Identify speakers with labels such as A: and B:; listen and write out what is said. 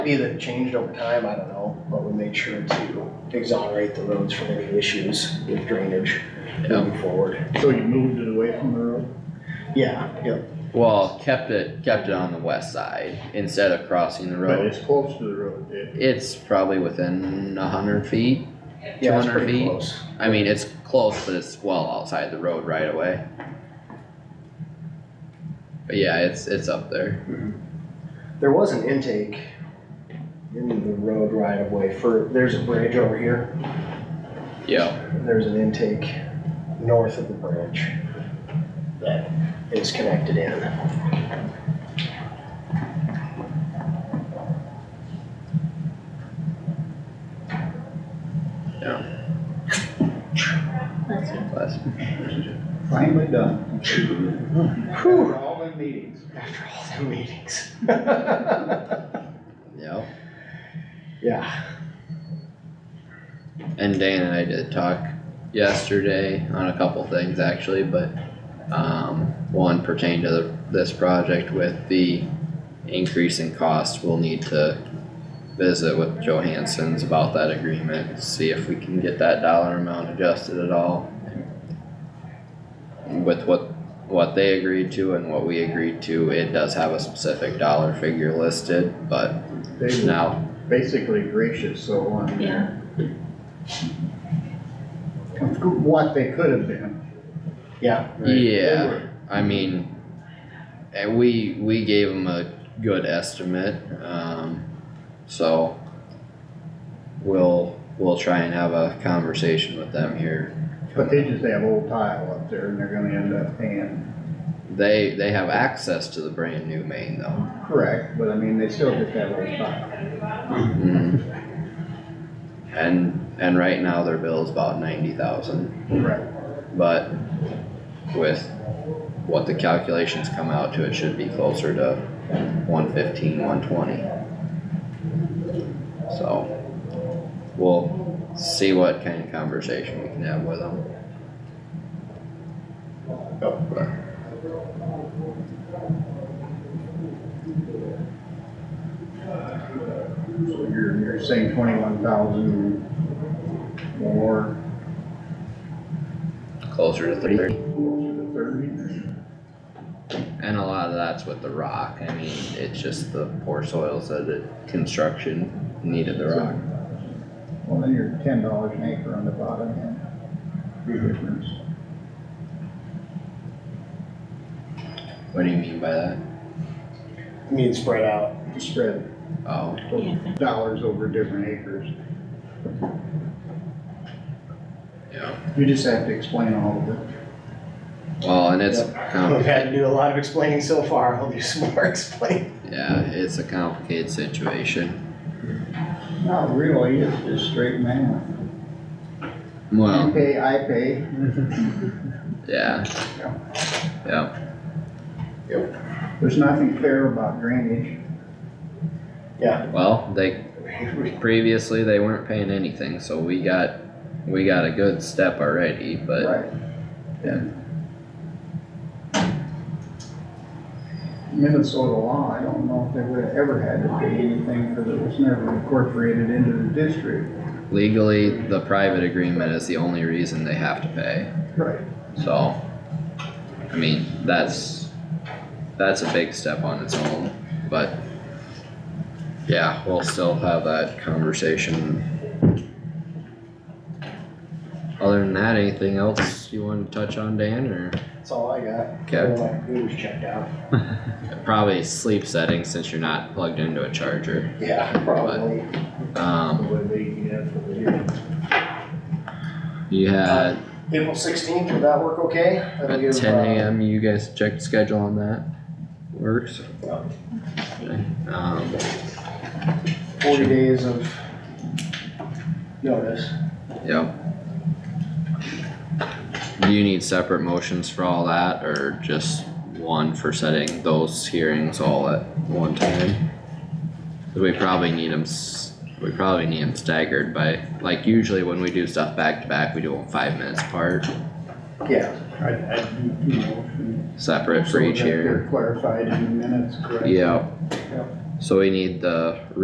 A: Maybe that changed over time, I don't know, but we made sure to exonerate the roads from any issues with drainage moving forward.
B: So you moved it away from the road?
A: Yeah, yep,
C: Well, kept it, kept it on the west side instead of crossing the
B: But
C: road.
B: it's close to the road, yeah.
C: It's probably within a hundred feet.
A: yeah, it's
C: 200
A: pretty
C: feet?
A: close.
C: I mean, it's close, but it's well outside the road right away. But yeah, it's, it's up there.
A: There was an intake in the road right of way for, there's a bridge over here,
C: Yep,
A: there's an intake north of the bridge that is connected in.
C: bless you.
D: Finally done.
A: Whew,
D: After all the meetings.
A: after all the meetings.
C: Yep.
A: Yeah.
C: And Dan and I did talk yesterday on a couple things actually, but um, one pertained to the, this project with the increase in cost. We'll need to visit with Johansson's about that agreement, see if we can get that dollar amount adjusted at all. With what, what they agreed to and what we agreed to, it does have a specific dollar figure listed, but
B: They were
C: now,
B: basically gracious, so on.
E: Yeah.
B: What they could have been.
A: Yeah,
B: right?
C: yeah.
B: They were.
C: I mean, and we, we gave them a good estimate, um, so. We'll, we'll try and have a conversation with them here.
B: But they just have old tile up there and they're gonna end up paying,
C: They, they have access to the brand new main though.
B: correct, but I mean, they still just have old tile.
C: Mhm. And, and right now their bill's about ninety thousand,
B: Right.
C: but with what the calculations come out to, it should be closer to one fifteen, one twenty. So, we'll see what kind of conversation we can have with them.
B: So you're, you're saying twenty-one thousand more,
C: Closer to thirty,
B: closer to thirty?
C: and a lot of that's with the rock, I mean, it's just the poor soils that the construction needed the rock.
B: Well, then you're ten dollars an acre on the bottom end. Big difference.
C: What do you mean by that?
A: I mean, spread out.
B: Spread
C: Oh,
B: dollars over different acres.
C: yeah,
B: You just have to explain all of it.
C: well, and it's, com-
A: We've had to do a lot of explaining so far, I'll do some more explaining.
C: yeah, it's a complicated situation.
B: Not really, it's just straight math. You
C: Well,
B: pay, I pay.
C: yeah.
B: Yeah.
C: Yeah.
B: There's nothing fair about drainage.
C: Well, they, previously they weren't paying anything, so we got, we got a good step already, but
B: Right.
C: Yeah.
B: Minnesota law, I don't know if they would have ever had to pay anything because it was never incorporated into the district.
C: legally, the private agreement is the only reason they have to pay,
B: Right.
C: so. I mean, that's, that's a big step on its own, but. Yeah, we'll still have that conversation. Other than that, anything else you wanna touch on, Dan, or?
A: That's all I got.
C: Okay.
A: All my computers checked out.
C: Probably sleep settings since you're not plugged into a charger.
A: Yeah, probably.
C: Um,
B: Would be, yeah, for the year.
C: you had
A: April sixteenth, would that work okay? That'll
C: at
A: give,
C: ten
A: uh,
C: AM, you guys checked schedule on that? Works? Okay, Um,
A: Forty days of notice.
C: yep. Do you need separate motions for all that or just one for setting those hearings all at one time? 'Cause We probably need them, we probably need them staggered by, like usually when we do stuff back to back, we do them five minutes apart,
A: Yeah,
B: I, I do, you know.
C: separate for each hearing.
B: Clarified in the minutes, correct?
C: Yeah.
B: Yep.
C: So we need the